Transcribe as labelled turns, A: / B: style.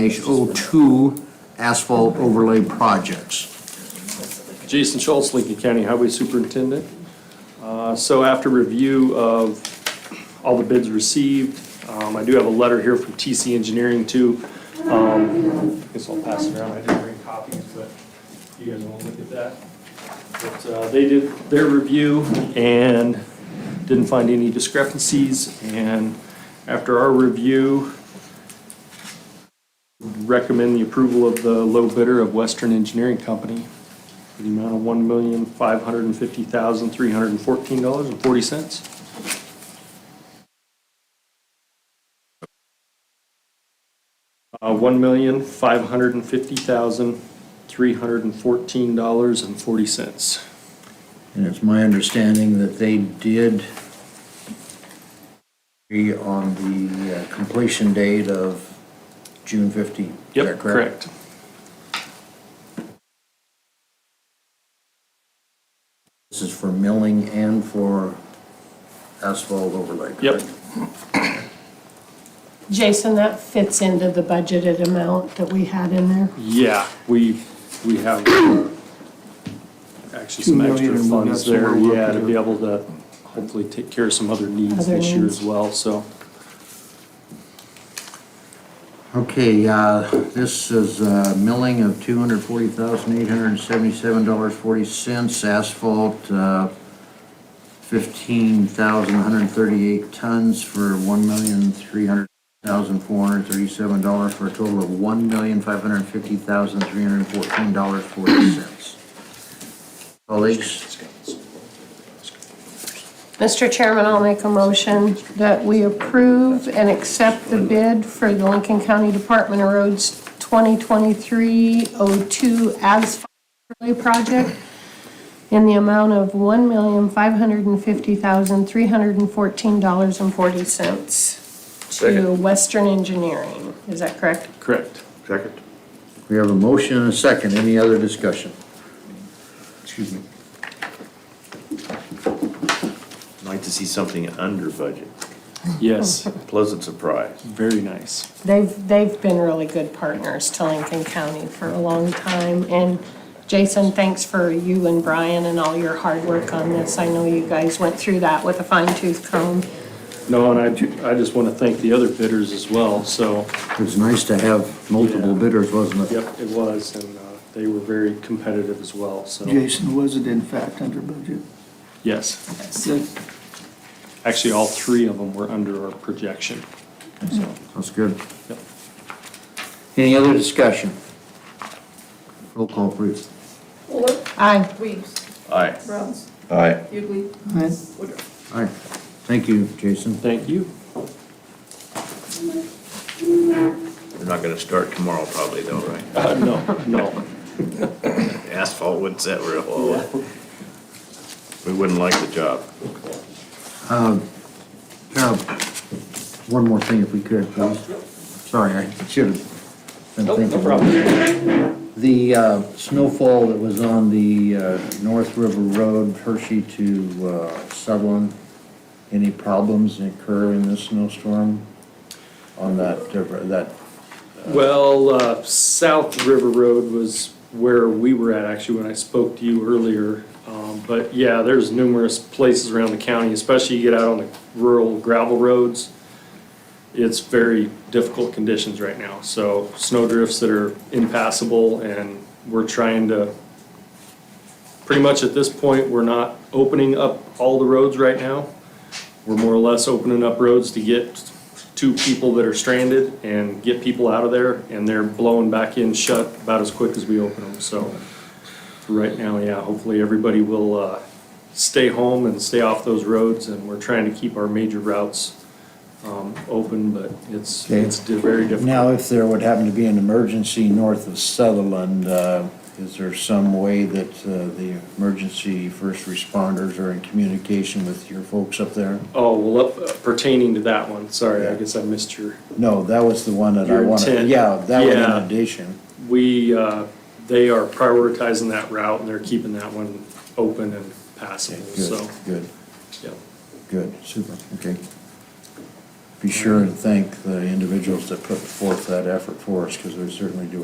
A: 02 asphalt overlay projects.
B: Jason Schultz, Lincoln County Highway Superintendent. Uh, So after review of all the bids received, um, I do have a letter here from TC Engineering too. Um, I guess I'll pass it around, I didn't bring copies, but you guys want to look at that. But uh, they did their review and didn't find any discrepancies. And after our review, recommend the approval of the low bidder of Western Engineering Company for the amount of one million, five hundred and fifty thousand, three hundred and fourteen dollars and forty cents. Uh, one million, five hundred and fifty thousand, three hundred and fourteen dollars and forty cents.
A: And it's my understanding that they did agree on the uh, completion date of June 15. Is that
B: Yep, correct.
A: This is for milling and for asphalt overlay.
B: Yep,
A: correct?
C: Jason, that fits into the budgeted amount that we had in there.
B: yeah, we, we have uh, actually some extra funds there, yeah, to be able to hopefully take care of some other needs
C: Other
B: this year
C: needs.
B: as well, so.
A: Okay, uh, this is uh, milling of $240,877.40, asphalt uh, 15,138 tons for $1,300,437 for a total of $1,550,314.40. Colleagues,
C: Mr. Chairman, I'll make a motion that we approve and accept the bid for the Lincoln County Department of Roads 2023-02 asphalt overlay project in the amount of $1,550,314.40 to
D: Second.
C: Western Engineering. Is that correct?
B: Correct.
D: Second.
A: we have a motion and a second. Any other discussion? Excuse me.
D: I'd like to see something under budget.
B: Yes,
C: Oh.
D: Pleasant surprise.
B: very nice.
C: They've, they've been really good partners to Lincoln County for a long time. And Jason, thanks for you and Brian and all your hard work on this. I know you guys went through that with a fine tooth comb.
B: No, and I, I just want to thank the other bidders as well, so,
A: It's nice to have multiple
B: Yeah.
A: bidders, wasn't it?
B: yep, it was, and uh, they were very competitive as well, so,
E: Jason, was it in fact under budget?
B: yes.
E: Good.
B: Actually, all three of them were under our projection, so,
A: That's good.
B: yep.
A: Any other discussion? Roll call, please.
F: Fuller,
C: Aye.
F: Weems,
D: Aye.
F: Rounds,
D: Aye.
F: Hughley,
E: Aye.
F: Woodruff.
A: All right. Thank you, Jason.
B: Thank you.
D: We're not gonna start tomorrow probably though, right?
B: Uh, No, no,
D: Asphalt wouldn't set real well. We wouldn't like the job.
A: Now, one more thing if we could, please. Sorry, I should have been
B: Nope,
A: thinking.
B: no problem.
A: The uh, snowfall that was on the uh, North River Road, Hershey to uh, Sutherland, any problems occur in this snowstorm on that, uh, that
B: Well, uh, South River Road was where we were at, actually, when I spoke to you earlier. Um, But yeah, there's numerous places around the county, especially you get out on the rural gravel roads. It's very difficult conditions right now, so snow drifts that are impassable, and we're trying to, pretty much at this point, we're not opening up all the roads right now. We're more or less opening up roads to get two people that are stranded and get people out of there, and they're blowing back in shut about as quick as we open them, so. for Right now, yeah, hopefully everybody will, uh, stay home and stay off those roads, and we're trying to keep our major routes, um, open, but it's,
G: Okay.
B: it's di- very difficult.
G: Now, if there would happen to be an emergency north of Sutherland, uh, is there some way that uh, the emergency first responders are in communication with your folks up there?
B: Oh, well, up- pertaining to that one, sorry, I guess I missed your,
G: No, that was the one that I
B: Your
G: wanted.
B: intent.
G: Yeah, that was
B: Yeah.
G: an addition.
B: we, uh, they are prioritizing that route, and they're keeping that one open and passable,
G: Good,
B: so,
G: good,
B: yeah.
G: good, super, okay.
A: be sure and thank the individuals that put forth that effort for us, because we certainly do